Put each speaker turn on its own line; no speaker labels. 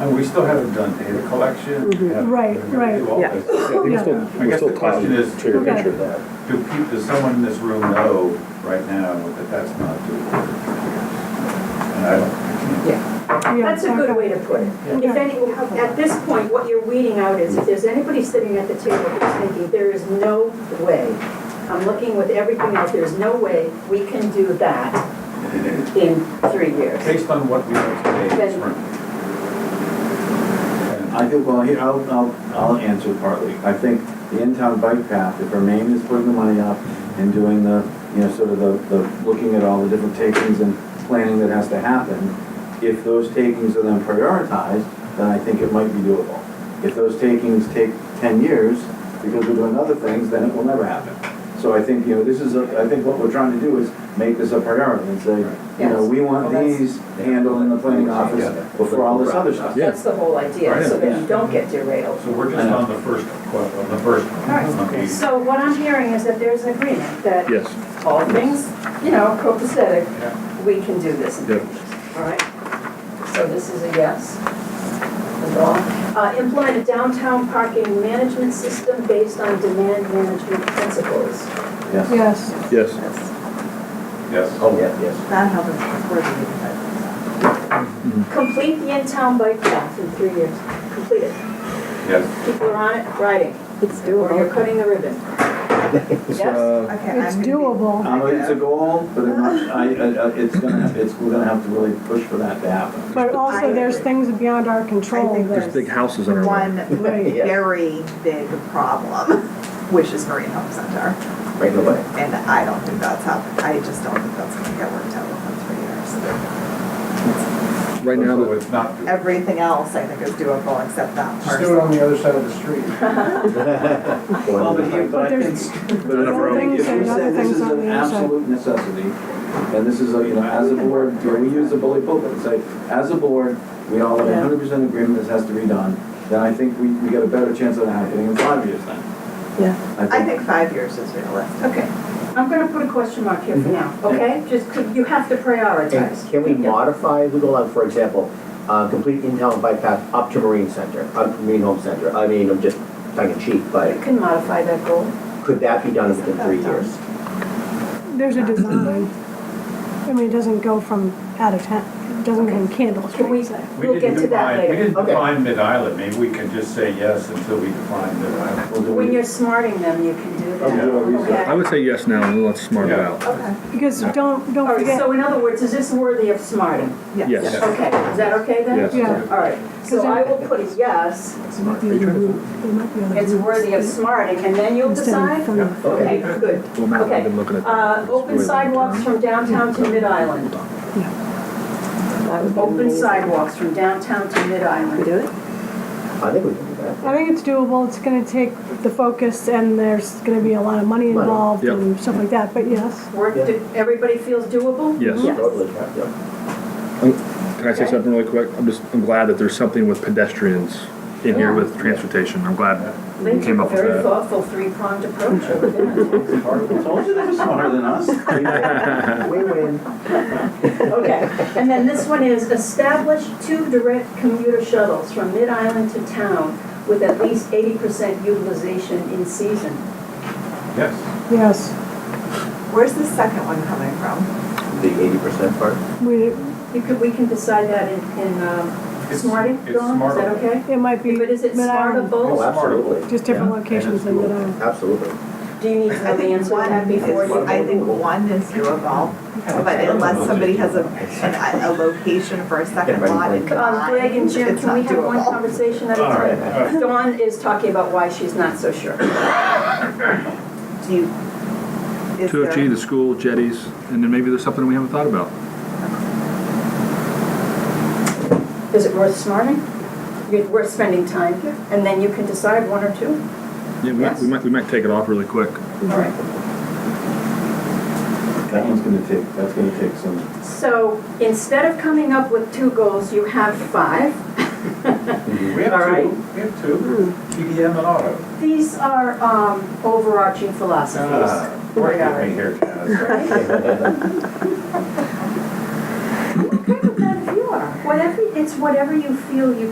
And we still haven't done data collection.
Mm-hmm.
we haven't-
Right,
we're gonna
right.
do all
Yeah.
this.
I think we're still,
I
we're
guess
still
the
time
question is-
to your
Okay.
picture of that.
Do people, does someone in this room know right now that that's not doable? And I don't, I can't-
Yeah,
That's
That's a good way to put it. If any, at this point, what you're weeding out is if there's anybody sitting at the table who's thinking, there is no way, I'm looking with everything else, there's no way we can do that in three years.
based on what we know today, it's
Then-
right. And
I think, well, here, I'll, I'll, I'll answer partly. I think the in-town bike path, if Remain is putting the money up and doing the, you know, sort of the, the, looking at all the different takings and planning that has to happen, if those takings are then prioritized, then I think it might be doable. If those takings take ten years, because we're doing other things, then it will never happen. So I think, you know, this is, a- I think what we're trying to do is make this a priority and say, you know,
Yes.
we want
Well, that's-
these handled in the planning office before all this other stuff.
That's the whole idea, so that you don't get derailed.
So we're just on the first, que- on the first.
All right.
Okay.
So what I'm hearing is that there's an agreement that
Yes,
all things, you know, copacetic,
Yeah.
we can do this in three
Yep.
years, all right? So this is a yes. That's all. Uh, implement a downtown parking management system based on demand management principles.
Yes.
Yes,
yes.
Yes.
Oh, yeah, yes.
that helps us work with it.
Complete the in-town bike path in three years, complete it.
Yes.
People are on it, riding,
It's
or you're
doable.
cutting the ribbon.
It's,
Yes.
uh,
Okay,
it's
I'm gonna be-
doable.
Um, it's a goal, but it might- I, I, I- it's gonna, it's, we're gonna have to really push for that to happen.
But also, there's things beyond our
I
control
think
that
There's big houses on our way.
One very big problem, which is Marine Help Center.
Right away.
And I don't think that's how, I just don't think that's gonna get worked out within three years.
Right now,
So
the-
it's not doable.
Everything else, I think, is doable except that
Just do it
parcel.
on the other side of the street.
Well, but here, but
But
I think,
there's-
but
Other
I think
things
if we
and other
say this
things
is
on
an
the other side.
absolute necessity, and this is, a you know, as a board, you know, we use the bully pulpit and say, as a board, we all have a
Yeah.
hundred percent agreement this has to be done, then I think we, we get a better chance of it happening in five years then.
Yeah. I
I think,
think five years is realistic.
Okay, I'm gonna put a question mark here for now, okay? Just, you have to
And
prioritize.
Mm-hmm. can we
Yeah.
modify legal, on, for example, uh, complete in-town bike path up to Marine Center, up to Marine Home Center? I mean, I'm just tongue in cheek, but
You can modify that goal.
could that be done within three years?
there's a design. I mean, it doesn't go from out of town, it doesn't go in candles,
Can we,
We
we'll get
didn't
to that
define- We
later.
didn't
Okay.
define Mid-Island, maybe we can just say yes until we define Mid-Island.
we'll do
When
it.
you're smarting them, you can do
Yeah.
that.
I would say yes now and then let's smart it
Yeah.
out.
Okay.
because don't, don't
All right,
forget,
so in other words, is this worthy of smarting?
Yes.
Yeah.
Okay, is that okay then?
Yes.
yeah.
All right, so I will put a yes,
Might be a route. There might be other
it's
routes.
worthy of smarting, and then you'll
Instead of
decide?
from-
Okay, good.
Well, Matt,
Okay.
I've been looking at.
Uh,
that.
open
It's really long
sidewalks
term.
from downtown to Mid-Island. Open sidewalks from downtown to
We
Mid-Island.
do it?
I think we can do that.
I think it's doable, it's gonna take the focus, and there's gonna be a lot of money
Money.
involved
Yep.
and stuff like that, but yes.
Work, do- everybody feels doable?
Yes.
Yeah.
Totally, yeah.
Can I say
Okay.
something really quick? I'm just, I'm glad that there's something with pedestrians in here
Yeah.
with transportation. I'm glad
They
we
took
came
a
up with
very
that.
thoughtful three-pronged approach over there.
I told you they were smarter than us.
We win.
Okay, and then this one is establish two direct commuter shuttles from Mid-Island to town with at least eighty percent utilization in season.
Yes.
Yes,
Where's the second one coming from?
The eighty percent part?
we,
You could, we can decide that in, in, um,
It's-
Smarty,
It's
Dawn, is
smartable.
that okay?
it might be.
But is it
Mid-Island,
Oh,
smartable?
absolutely.
Just different
Yeah,
locations
it's
in
doable.
Mid Island.
Absolutely.
Do you need to know the answer to that before you?
I think one is doable, but unless somebody has a, an- a location for a second lot in
Um, Greg and
mind,
Jim,
it's
can we
not
have one
doable.
conversation at a
All right, all
time? Dawn is talking about why she's not so sure.
Do you, is
Two
there?
of G, the school, jetties, and then maybe there's something we haven't thought about.
Is it worth smarting? You're worth spending time here, and then you can decide one or two?
Yeah, we might, we might, we might take it off really quick.
All right.
That one's gonna take, that's gonna take some.
So instead of coming up with two goals, you have five.
We have
All right.
two, we have two, TDM and auto.
These are um, overarching philosophies.
Ah, Work with me here, Janice.
Okay with that if you are. Whatever, it's whatever you feel you